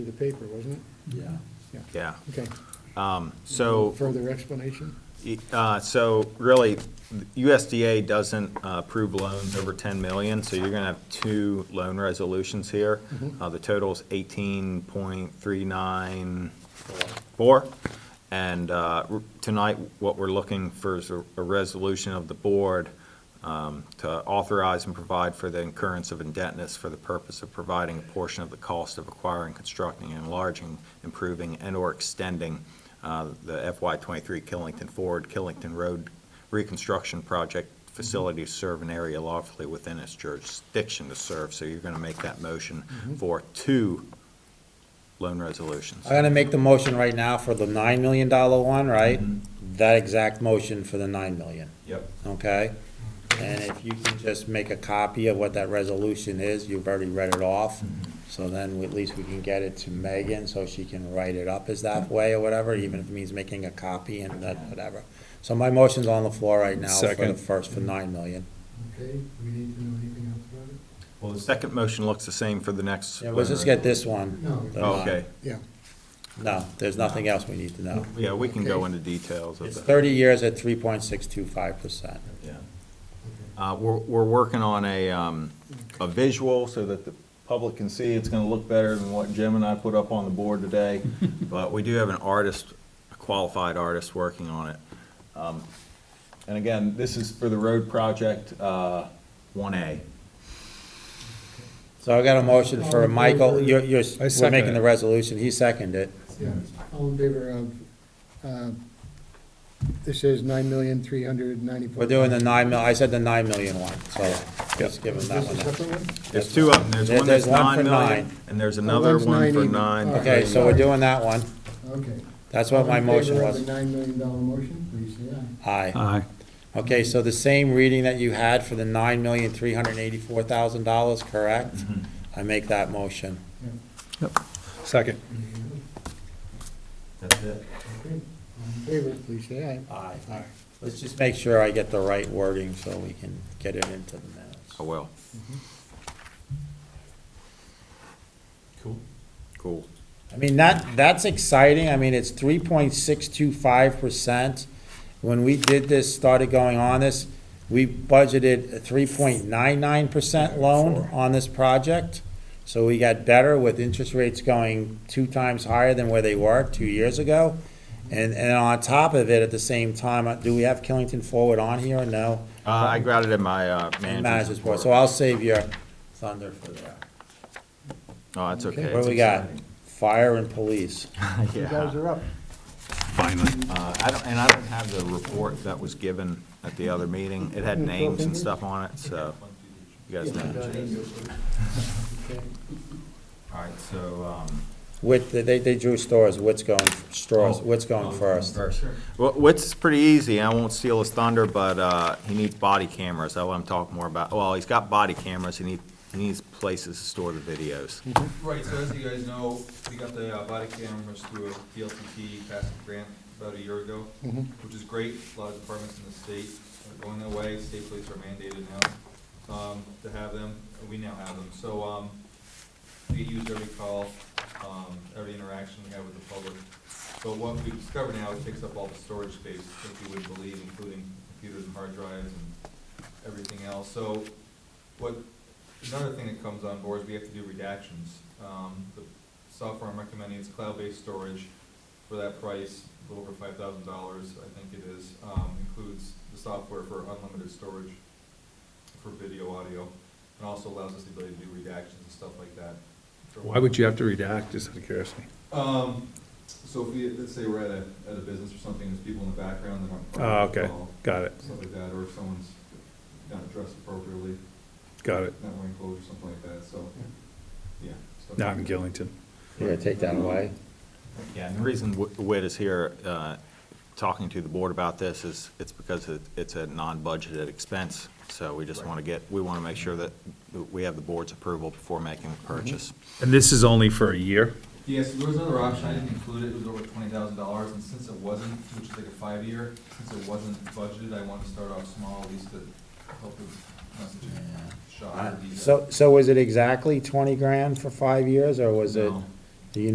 through the paper, wasn't it? Yeah. Yeah, Okay. so, Further explanation? uh, so really, USDA doesn't uh, approve loans over 10 million, so you're going to have two loan resolutions here. Uh, The total's 18.394. And uh, r- tonight, what we're looking for is a a resolution of the board um, to authorize and provide for the incurrence of indebtedness for the purpose of providing a portion of the cost of acquiring, constructing, enlarging, improving, and/or extending uh, the FY '23 Killington Ford, Killington Road reconstruction project facility to serve an area lawfully within its jurisdiction to serve. So you're going to make that motion for two loan resolutions. I'm gonna make the motion right now for the nine million dollar one, right? That exact motion for the nine million, Yep. okay? And if you can just make a copy of what that resolution is, you've already read it off. So then we- at least we can get it to Megan so she can write it up as that way or whatever, even if it means making a copy and that, whatever. So my motion's on the floor right now for the Second. first, for nine million. Okay, we need to know anything else about it? Well, the second motion looks the same for the next. Yeah, let's just get this one. No. The Oh, nine. Okay, Yeah. No, there's nothing else we need to know. yeah, we can go Okay. into details of It's that. thirty years at three point six two five percent. Yeah. Uh, We're, we're working on a, um, a visual so that the public can see. It's going to look better than what Jim and I put up on the board today. But we do have an artist, a qualified artist, working on it. Um, And again, this is for the road project uh, 1A. So I got a motion for Michael, you're, you're, I we're second making it. the resolution, he seconded it. Yeah. All in favor of, uh, this is nine million, three hundred ninety-four. We're doing the nine mil, I said the nine million one, so just give him that This is one. separate one? There's two of them. There's There- one that's there's one 9 for million, nine. and there's another one's one nine for even. 9. All right. Okay, so we're doing that one, Okay. that's what my motion All in was. favor of the nine million dollar motion, please say aye. Aye. Aye. Okay, so the same reading that you had for the nine million, three hundred and eighty-four thousand dollars, correct? Mm-hmm. I make that motion. Second. That's it. Okay. All in favor, please say aye. Aye. Let's just make sure I get the right wording so we can get it into the minutes. I will. Cool. Cool. I mean, that, that's exciting. I mean, it's three point six two five percent. When we did this, started going on this, we budgeted a three point nine nine percent loan on this project. So we got better with interest rates going two times higher than where they were two years ago. And, and on top of it, at the same time, uh, do we have Killington Forward on here or no? Uh, I got it in my uh, manager's Managers report. Board, so I'll save your thunder for that. Oh, that's okay. What do we got? Fire and police. You guys Yeah. are up. Finally. Uh, I don't, and I don't have the report that was given at the other meeting. It had names and stuff on it, so you guys know. All right, so, um. Whit, they, they drew stores, Whit's going, straws, Oh. Whit's going first. Well, Whit's pretty easy. I won't steal his thunder, but, uh, he needs body cameras. I let him talk more about, well, he's got body cameras. He needs, he needs places to store the videos. Right, so as you guys know, we got the uh, body cameras through a DLCT passive grant about a year ago, which is great. A lot of departments in the state are going that way. State police are mandated now um, to have them, and we now have them. So um, we use every call, um, every interaction we have with the public. But what we discover now, it takes up all the storage space that you would believe, including computers and hard drives and everything else. So what, another thing that comes on board is we have to do redactions. Um, the software I'm recommending is cloud-based storage for that price, a little over five thousand dollars, I think it is, um, includes the software for unlimited storage for video, audio, and also allows us the ability to do redactions and stuff like that. Why would you have to redact, just out of curiosity? Um, so if we, let's say we're at a, at a business or something, there's people in the background that aren't. Oh, part of the okay, call, got it, Stuff like that, or if someone's not dressed appropriately, got it. not wearing clothes or something like that, so, yeah. stuff Not like in that. Gillington. You're gonna take that away? Yeah, and the reason Wh- Whit is here, uh, talking to the board about this is, it's because it- it's a non-budgeted expense, so we just want to get, we want to make sure that we have the board's approval before making the purchase. And this is only for a year? Yeah, so there was another option, I didn't include it, it was over twenty thousand dollars, and since it wasn't, which is like a five-year, since it wasn't budgeted, I wanted to start off small, at least to help with messaging, shot, or So, so was it exactly twenty grand for five years, or was it? No.